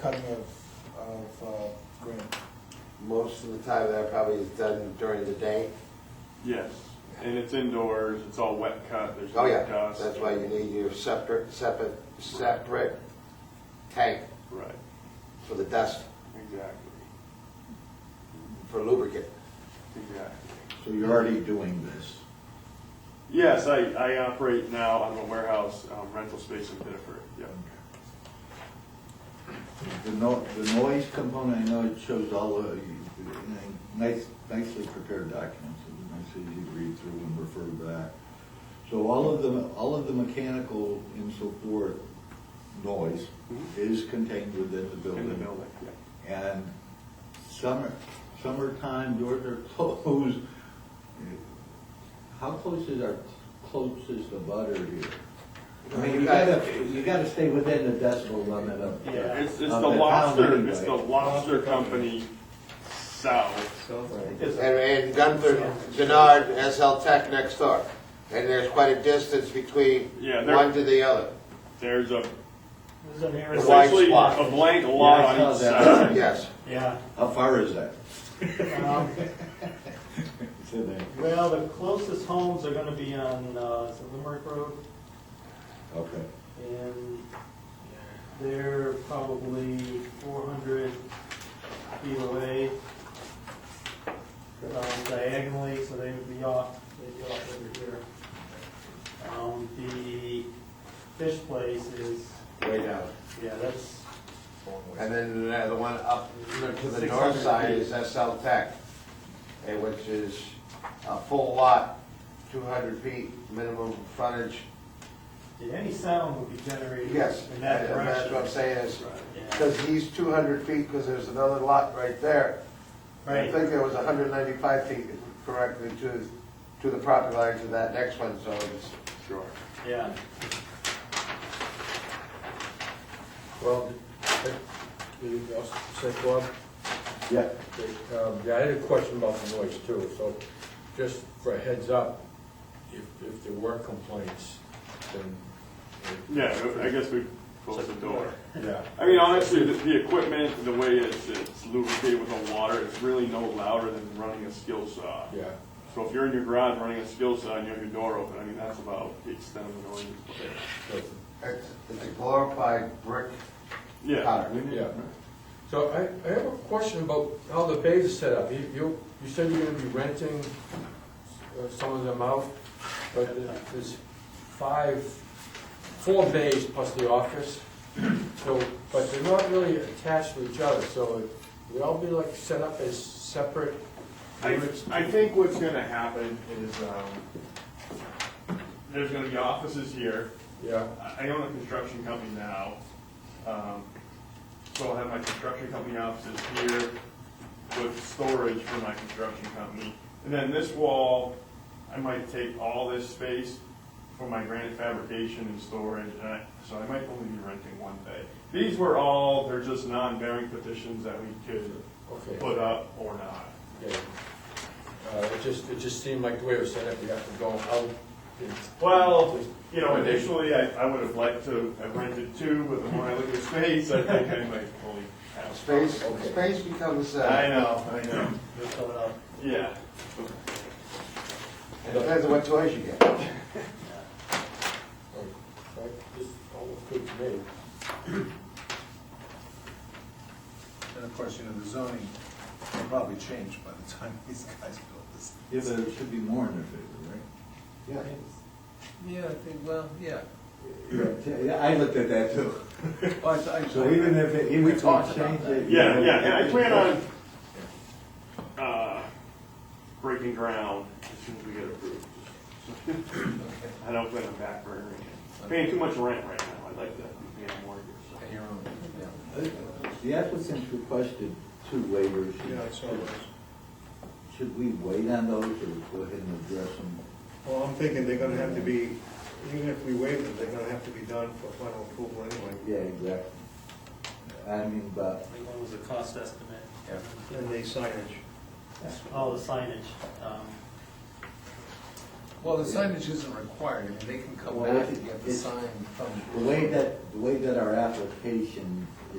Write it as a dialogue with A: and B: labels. A: cutting of, of uh, green.
B: Most of the time, that probably is done during the day.
C: Yes, and it's indoors, it's all wet cut, there's
B: Oh,
C: no
B: yeah,
C: dust.
B: that's why you need your separate, separate, separate tank
C: Right,
B: for the dust,
C: exactly,
B: for lubricant.
C: exactly.
D: So you're already doing this.
C: Yes, I, I operate now on a warehouse um, rental space in Pittsburgh, yeah.
D: The no, the noise component, I know it shows all the, nice, nicely prepared documents, it's nice that you read through and refer back. So all of the, all of the mechanical and so forth noise
C: Mhm.
D: is contained within the building.
C: In the building, yeah.
D: And summer, summertime, doors are closed. How close is our closest abutter here? I mean, you gotta, you gotta stay within the decibel limit of.
C: Yeah, it's, it's the
D: of pound
C: lobster,
D: anyway.
C: it's the lobster company south.
B: And, and Gunther, Denard, SL Tech next door. And there's quite a distance between
C: Yeah, they're-
B: one to the other.
C: There's a,
E: This is an
B: The white
C: essentially
B: spot.
C: a blank lot
D: Yeah, I
C: on
D: saw
C: each
D: that.
C: side.
B: Yes,
E: Yeah.
D: How far is that?
E: Um,
D: It's in there.
E: Well, the closest homes are gonna be on, uh, is it Limerick Road,
D: Okay.
E: and they're probably four hundred feet away um, diagonally, so they would be off, they'd be off over here. Um, the fish place is,
B: way down.
E: yeah, that's,
B: And then the the one up to the
E: 600
B: north side
E: feet.
B: is SL Tech, eh, which is a full lot, 200 feet minimum frontage.
E: yeah, any sound would be generated
B: Yes,
E: in
B: and
E: that direction.
B: that's what I'm saying is,
E: Yeah.
B: because he's 200 feet, because there's another lot right there. I
E: Right.
B: think there was 195 feet correctly to, to the property line to that next one, so it's,
C: Sure.
E: Yeah,
F: Well, I- you also said, Bob,
D: Yeah.
F: that, um, yeah, I had a question about the noise too, so just for a heads up, if, if there were complaints, then. it-
C: Yeah, I guess we close the door.
F: Yeah.
C: I mean, honestly, the, the equipment, the way it's, it's lubricated with the water, it's really no louder than running a skill saw.
F: Yeah,
C: So if you're in your garage running a skill saw and you have your door open, I mean, that's about the extent of the noise.
F: so-
B: it's it's a glorified brick
C: Yeah,
B: cutter.
F: yeah. So I, I have a question about how the bays are set up. You, you you said you're gonna be renting uh, some of them out, but there- there's five, four bays plus the office. So, but they're not really attached to each other, so they all be like set up as separate
C: I,
F: units?
C: I think what's gonna happen is, um, there's gonna be offices here,
F: Yeah,
C: I I own a construction company now, um, so I'll have my construction company offices here with storage for my construction company. And then this wall, I might take all this space for my granite fabrication and storage, and I, so I might only be renting one bay. These were all, they're just non-bearing petitions that we could
F: okay.
C: put up or not.
F: Yeah. Uh, it just, it just seemed like the way it was set up, you have to go out. and-
C: Well, you know, initially, I, I would have liked to have rented two, but the more I look at space, I think I might only have.
B: Space,
F: Okay.
B: space becomes,
C: I
B: uh,
C: know, I know,
E: they're coming up.
C: yeah.
B: it depends on what toys you get.
F: Like, like, This all looked good to me.
G: And of course, you know, the zoning will probably change by the time these guys build this.
D: Yeah, but it should be more in their favor, right?
B: Yeah.
G: Yeah, well, yeah.
D: Yeah, I looked at that too. So even if, it- even
G: We
D: if we
G: talked
D: change
G: about
D: it.
C: Yeah,
D: you know,
C: yeah, and I plan on, uh, breaking ground as soon as we get approved. I don't plan on backburnering it, paying too much rent right now, I'd like to be on mortgage. so.
D: The applicants requested two waivers. Should we wait on those or go ahead and address them?
G: Well, I'm thinking they're gonna have to be, even if we waive them, they're gonna have to be done for final approval anyway.
D: Yeah, exactly. I mean, but,
E: Like one was a cost estimate.
G: And they signage.
E: All the signage, um,
H: Well, the signage isn't required, I mean, they can come
D: Well,
H: back
D: it-
H: and get the
D: it's-
H: sign from.
D: the way that, the way that our application